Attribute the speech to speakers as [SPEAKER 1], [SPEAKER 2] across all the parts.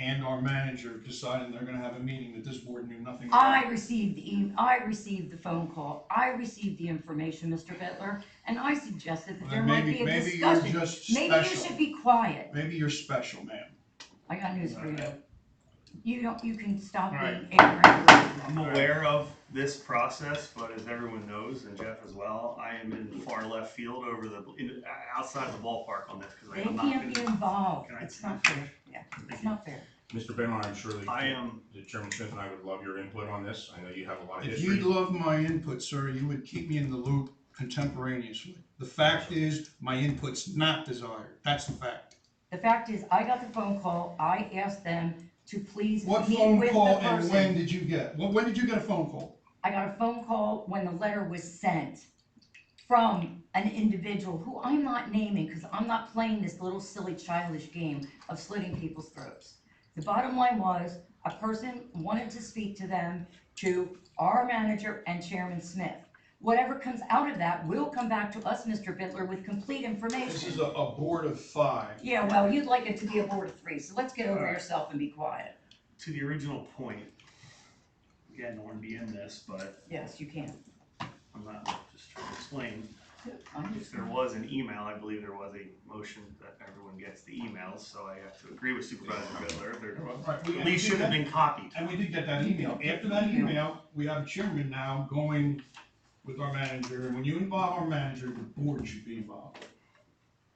[SPEAKER 1] and our manager deciding they're gonna have a meeting that this board knew nothing
[SPEAKER 2] I
[SPEAKER 1] about.
[SPEAKER 2] received the, e- I received the phone call, I received the information, Mr. Bitler, and I suggested that there
[SPEAKER 1] Then
[SPEAKER 2] might
[SPEAKER 1] Maybe,
[SPEAKER 2] be a
[SPEAKER 1] maybe you're
[SPEAKER 2] discussion.
[SPEAKER 1] just
[SPEAKER 2] Maybe you should
[SPEAKER 1] special.
[SPEAKER 2] be quiet.
[SPEAKER 1] Maybe you're special, ma'am.
[SPEAKER 2] I got news for you.
[SPEAKER 1] Alright.
[SPEAKER 2] You don't, you can stop being
[SPEAKER 3] Alright. I'm
[SPEAKER 2] ignorant.
[SPEAKER 3] aware of this process, but as everyone knows, and Jeff as well, I am in far left field over the, in- outside of the ballpark on this, because
[SPEAKER 2] They
[SPEAKER 3] I'm not.
[SPEAKER 2] can't be
[SPEAKER 3] gonna-
[SPEAKER 2] involved.
[SPEAKER 3] Can I-
[SPEAKER 2] It's not fair. Yeah, it's
[SPEAKER 3] Thank you.
[SPEAKER 2] not fair.
[SPEAKER 4] Mr. Benlon, I'm sure that
[SPEAKER 3] I am,
[SPEAKER 4] that Chairman Smith and I would love your input on this. I know you have a lot of
[SPEAKER 1] If
[SPEAKER 4] history.
[SPEAKER 1] you'd love my input, sir, you would keep me in the loop contemporaneously. The fact is, my input's not desired. That's the fact.
[SPEAKER 2] The fact is, I got the phone call, I asked them to please
[SPEAKER 1] What
[SPEAKER 2] meet
[SPEAKER 1] phone
[SPEAKER 2] with
[SPEAKER 1] call
[SPEAKER 2] the
[SPEAKER 1] and when
[SPEAKER 2] person.
[SPEAKER 1] did you get? When, when did you get a phone call?
[SPEAKER 2] I got a phone call when the letter was sent from an individual who I'm not naming, because I'm not playing this little silly childish game of slitting people's throats. The bottom line was, a person wanted to speak to them, to our manager and Chairman Smith. Whatever comes out of that will come back to us, Mr. Bitler, with complete
[SPEAKER 1] This is
[SPEAKER 2] information.
[SPEAKER 1] a, a board of five.
[SPEAKER 2] Yeah, well, you'd like it to be a board of three, so let's get over
[SPEAKER 3] Alright.
[SPEAKER 2] yourself and be quiet.
[SPEAKER 3] to the original point, again, I don't want to be in this, but
[SPEAKER 2] Yes, you can.
[SPEAKER 3] I'm not, just trying to explain.
[SPEAKER 2] I'm
[SPEAKER 3] If
[SPEAKER 2] just-
[SPEAKER 3] there was an email, I believe there was a motion that everyone gets the emails, so I have to agree with Supervisor Fiddler. There
[SPEAKER 1] Right, we-
[SPEAKER 3] at least should have been copied.
[SPEAKER 1] And we did get that email. After that email, we have a chairman now going with our manager, and when you involve our manager, the board should be involved.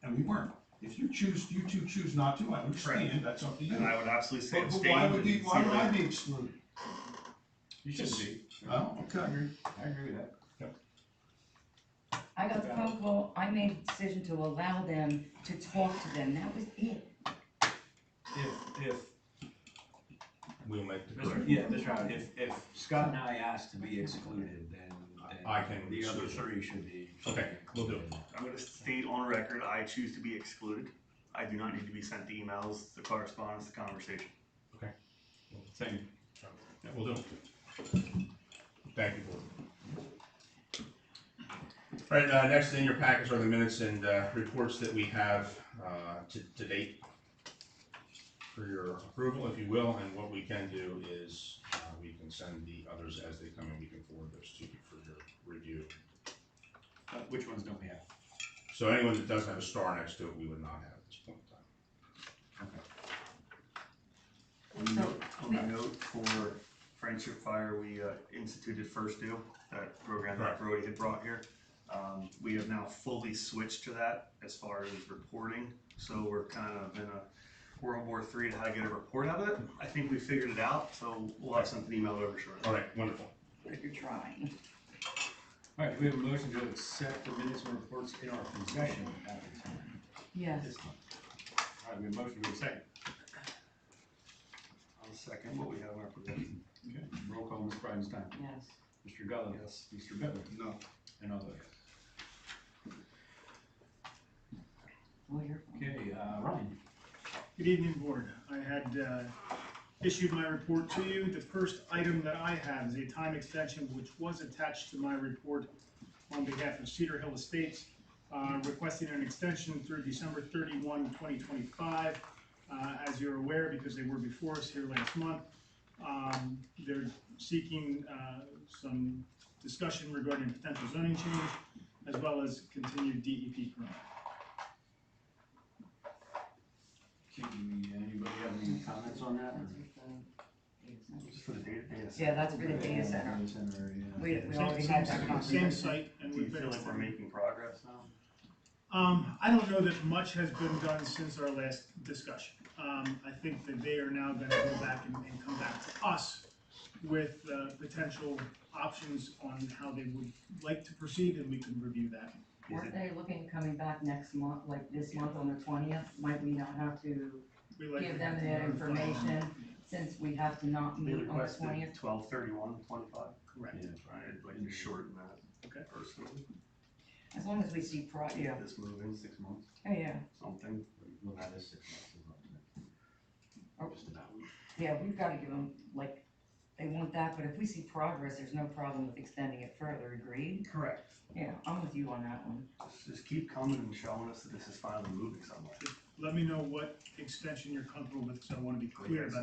[SPEAKER 1] And we weren't. If you choose, you two choose not to, I understand, that's up to you.
[SPEAKER 3] And I would absolutely say
[SPEAKER 1] But but
[SPEAKER 3] abstain.
[SPEAKER 1] why would
[SPEAKER 3] and
[SPEAKER 1] we,
[SPEAKER 3] see
[SPEAKER 1] why would I
[SPEAKER 3] later.
[SPEAKER 1] be excluded?
[SPEAKER 5] You should be.
[SPEAKER 1] Oh, okay.
[SPEAKER 5] I agree with that.
[SPEAKER 2] I got the phone call, I made a decision to allow them to talk to them, that was it.
[SPEAKER 5] If, if,
[SPEAKER 4] We'll make the
[SPEAKER 5] Mr.
[SPEAKER 4] correct.
[SPEAKER 5] yeah, Mr. Howard, if, if Scott and I asked to be excluded, then, then
[SPEAKER 4] I can
[SPEAKER 5] The other
[SPEAKER 4] exclude.
[SPEAKER 5] three should be.
[SPEAKER 4] Okay, we'll do it.
[SPEAKER 3] I'm gonna state on record, I choose to be excluded. I do not need to be sent the emails, the correspondence, the conversation.
[SPEAKER 5] Same.
[SPEAKER 4] Yeah, We'll do it. Thank you, board. All right, uh, next in your packets are the minutes and, uh, reports that we have, uh, to, to date for your approval, if you will, and what we can do is, uh, we can send the others as they come in, we can forward those to you for your review.
[SPEAKER 5] Uh, Which ones don't we have?
[SPEAKER 4] So anyone that doesn't have a star next to it, we would not have at this point in time.
[SPEAKER 3] On
[SPEAKER 2] So-
[SPEAKER 3] note- on the note for Friendship Fire, we uh, instituted First Due, that program that
[SPEAKER 4] Right.
[SPEAKER 3] Brody had brought here. Um, we have now fully switched to that as far as reporting, so we're kind of in a World War Three to how to get a report out of it. I think we figured it out, so we'll have something emailed over shortly.
[SPEAKER 4] All right, wonderful.
[SPEAKER 2] If you're trying.
[SPEAKER 5] All right, we have a motion to accept the minutes and reports in our possession at the time.
[SPEAKER 2] Yes,
[SPEAKER 5] This one. All right, we have a motion, we have a second.
[SPEAKER 3] I'll second what we have in our provision.
[SPEAKER 5] Okay, roll call, Ms. Bridenstine.
[SPEAKER 2] yes.
[SPEAKER 5] Mr. Gallo.
[SPEAKER 3] Yes.
[SPEAKER 5] Mr. Bittler.
[SPEAKER 1] No.
[SPEAKER 5] And all those.
[SPEAKER 2] Well, you're-
[SPEAKER 5] Okay, uh, Ryan.
[SPEAKER 6] Good evening, Board. I had uh, issued my report to you. The first item that I have is a time extension which was attached to my report on behalf of Cedar Hill Estates, uh, requesting an extension through December 31, 2025. Uh, As you're aware, because they were before us here last month, um, they're seeking uh, some discussion regarding potential zoning change as well as continued DEP permit.
[SPEAKER 5] Can you- anybody have any comments on that?
[SPEAKER 2] That's
[SPEAKER 5] or-
[SPEAKER 2] with the-
[SPEAKER 3] Just for the data, data. set.
[SPEAKER 2] Yeah, that's for the data center.
[SPEAKER 5] Data center, yeah.
[SPEAKER 2] We, we
[SPEAKER 6] Same-
[SPEAKER 2] already
[SPEAKER 6] same
[SPEAKER 2] had that
[SPEAKER 6] site-
[SPEAKER 2] conversation.
[SPEAKER 6] Same site, and
[SPEAKER 3] Do
[SPEAKER 6] we
[SPEAKER 3] you feel
[SPEAKER 6] fixed
[SPEAKER 3] like we're
[SPEAKER 6] it.
[SPEAKER 3] making progress now?
[SPEAKER 6] Um, I don't know that much has been done since our last discussion. Um, I think that they are now gonna go back and, and come back to us with, uh, potential options on how they would like to proceed, and we can review that.
[SPEAKER 3] Is
[SPEAKER 2] Weren't
[SPEAKER 3] it-
[SPEAKER 2] they looking, coming back next month, like this month on the twentieth? Might we not have to,
[SPEAKER 6] We like
[SPEAKER 2] Give them that information. since we have to not
[SPEAKER 3] They
[SPEAKER 2] meet on the twentieth?
[SPEAKER 3] requested twelve thirty-one, twenty-five.
[SPEAKER 6] Correct.
[SPEAKER 5] Yeah.
[SPEAKER 3] I'd like to shorten that
[SPEAKER 6] Okay.
[SPEAKER 3] personally.
[SPEAKER 2] As long as we see, pro- yeah,
[SPEAKER 3] Get This moving, six months,
[SPEAKER 2] oh, yeah,
[SPEAKER 3] something.
[SPEAKER 5] We'll have this six months.
[SPEAKER 2] Oh.
[SPEAKER 5] Just about.
[SPEAKER 2] yeah, we've gotta give them, like, they want that, but if we see progress, there's no problem with extending it further, agreed?
[SPEAKER 3] Correct.
[SPEAKER 2] Yeah, I'm with you on that one.
[SPEAKER 3] Just keep coming and showing us that this is finally moving somewhere.
[SPEAKER 6] let me know what extension you're comfortable with, because I want to be clear about